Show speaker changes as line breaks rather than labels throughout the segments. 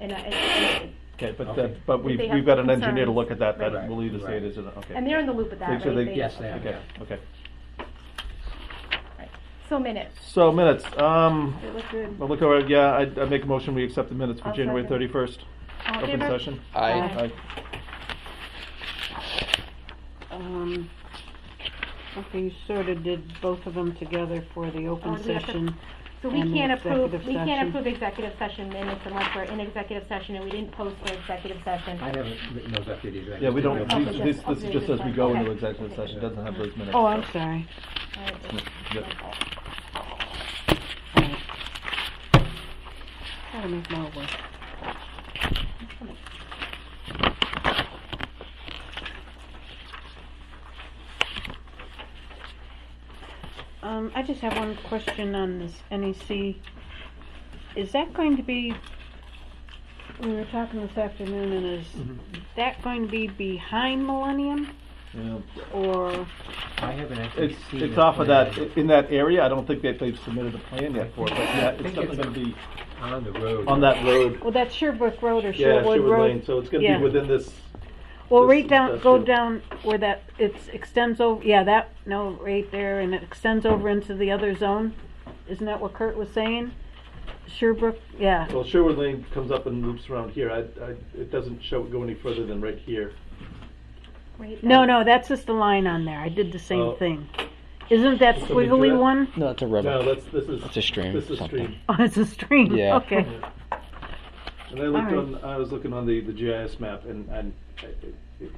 And I, and-
Okay, but,
Okay.
that- but we've,
they
we've
have
got an engineer to look at that,
concerns,
that
right.
will either say
Right.
it is, or not. okay.
and they're in the loop with that,
So
right?
they-
They-
Yes, they are.
Okay, okay.
right. So minutes,
So minutes, um,
it looked good.
I'll look over, it. yeah, I'd, I'd make a motion, we accept the minutes for
I'll
January
second.
thirty-first,
All in
open
favor?
session.
Aye.
Aye.
Um, okay, you sort of did both of them together for the
Oh,
open
do we have to-
session.
So we
And the
can't approve,
executive
we can't
session.
approve executive session minutes unless we're in executive session and we didn't post for executive session.
I haven't written those up yet either. I
Yeah, we
just
don't,
did them.
Okay,
these- this,
yes,
this is just as we
okay.
go into
Okay.
executive session, it doesn't have those minutes.
Oh, I'm
so-
sorry.
All right,
yeah.
Gotta make more work. Um, I just have one question on this NEC. Is that going to be, we were talking this afternoon, and is
Mm-hmm.
that going to be behind Millennium
Yeah.
or?
I haven't actually
It's,
seen.
it's
the
off of
plan
that, in that area, I don't think that they've submitted a plan yet for it, but yeah, it's
think
definitely
it's-
gonna be
On the road.
on that road.
Well, that's Sherbrooke Road or
Yeah,
Sherwood
Sherwood
Road.
Lane, so it's
yeah.
gonna be within this,
Well,
This
right
is
down, go
industrial.
down where that, it extends over, yeah, that, no, right there, and it extends over into the other zone. Isn't that what Kurt was saying? Sherbrooke, yeah,
well, Sherwood Lane comes up and loops around here, I, I, it doesn't show, go any further than right here.
Right.
no, no, that's just the line on there, I did the
Oh.
same thing. Isn't that
Something to
squiggly
that?
one?
No, it's a river.
No, that's, this is.
It's a stream,
This is
something.
stream.
Oh, it's a stream,
Yeah.
okay.
And I looked
Alright.
on, I was looking on the, the GIS map and, and I, it- it-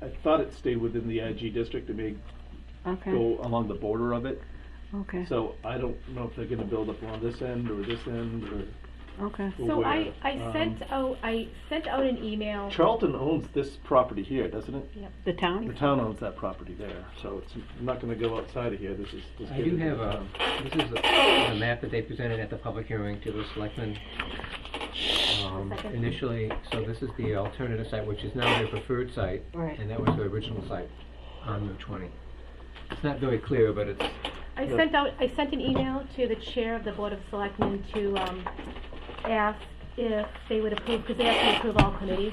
I thought it stayed within the IG district, it may
Okay,
go along the border of it.
okay,
So I don't know if they're gonna build up along this end or this end or
okay.
or
So I,
where.
I
Um,
sent out, I sent out an
um,
email.
Charlton owns this property here, doesn't it?
The
The
town?
town owns that property there, so it's not gonna go outside of here, this is. this
I do
is-
have a, this is a, the map that they presented at the public hearing to the selectmen. Um, initially, so this is the alternative site, which is now their preferred site.
Right.
And that was their original site on Route twenty. It's not very clear, but it's,
I sent out, I sent an email to the chair of the Board of Selectmen to, um, ask if they would approve, because they have to approve all committees,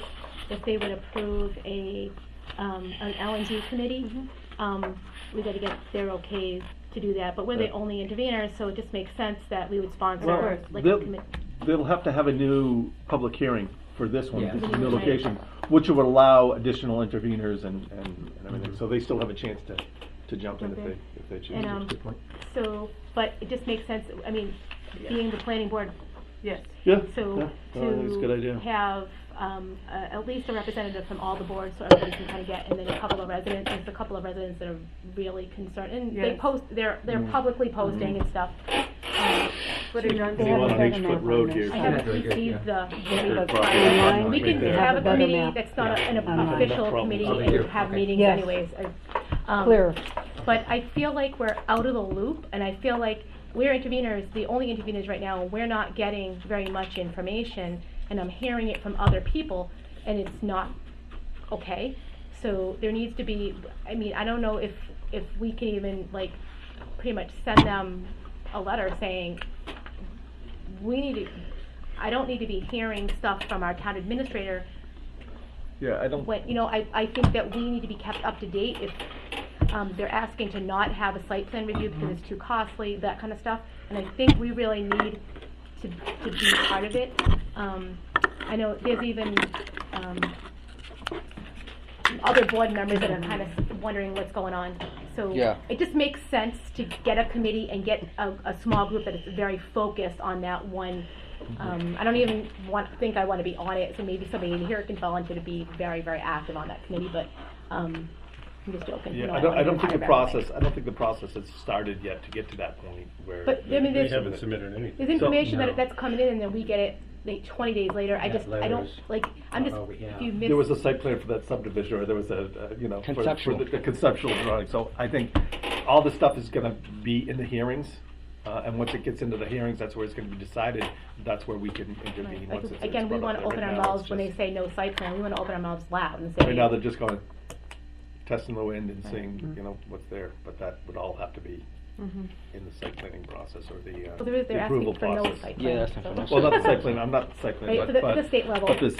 if they would approve a, um, an LNG committee. Um, we gotta get their okays to do that, but we're the
Right.
only interveners, so it just makes sense that we would
Well,
sponsor, like, a
they'll-
committee.
They'll have to have a new public hearing for this one,
Yeah.
this new location, which would allow additional interveners and, and and everything, so they still have a chance to, to jump in if they,
Okay.
if they choose.
And, um,
good point.
so, but it just makes sense, I mean, being the planning board,
Yes.
Yeah, yeah,
so
no, I think it's a good
to
idea.
have, um, a- at least a representative from all the boards, so everybody can kind of get, and then a couple of residents, there's a couple of residents that are really concerned, and they
Yes.
post, they're, they're
Mm-hmm.
publicly posting and stuff. Um,
They want on each foot road here.
I
Yeah,
haven't
very good,
received the,
Their
the
property
final
line
one. we
right
can
there.
have a
Yeah. better
committee
map.
that's not a- an
Yeah.
official
No problem.
committee
Over
and
here,
have
okay.
meetings
Yes.
anyways. Um,
Clear,
but I feel like we're out of the loop, and I feel like we're interveners, the only interveners right now, and we're not getting very much information, and I'm hearing it from other people, and it's not okay. So there needs to be, I mean, I don't know if, if we can even, like, pretty much send them a letter saying, we need to, I don't need to be hearing stuff from our town administrator
Yeah, I don't,
when, you know, I, I think that we need to be kept up to date if, um, they're asking to not have a site plan review because it's too costly, that kind of stuff. And I think we really need to, to be part of it. Um, I know there's even, um, other board members that are kind of wondering what's going on. So
Yeah.
it just makes sense to get a committee and get a, a small group that is very focused on that one. Um, I don't even want, think I want to be on it, so maybe somebody in here can volunteer to be very, very active on that committee, but, um, I'm just joking. you
yeah,
know,
I don't,
wanna
I don't
be part
think the
of that anyway.
process, I don't think the process has started yet to get to that point where.
But, I mean,
They
there's,
haven't submitted anything.
there's information
no.
that, that's coming in and then we get it like twenty days later. I
Yeah,
just, I don't,
letters. Oh,
like, I'm
Not
just,
all we have.
if you miss.
There was a site plan for that subdivision, or there was a, uh, you know, for-
Conceptual.
for the- the conceptual drawing, so I think all this stuff is gonna be in the hearings, uh, and once it gets into the hearings, that's where it's gonna be decided, that's where we can intervene.
Like,
once it's- it's
Again, we
brought
want
up
to
there.
open
Right
our
now, it's
mouths when they
just-
say no site plan, we want to open our mouths loud and
Right now, they're
say, Mm-hmm.
just going, testing the wind and seeing, you know, what's there, but that would all have to be in the site planning process or the, uh,
Well, they're, they're
the approval
asking for no
process.
site plan.
Yeah, that's not
so-
for no
Well, not the site plan, I'm not the site plan,
Right,
but.
for the-
but-
the state level.
But the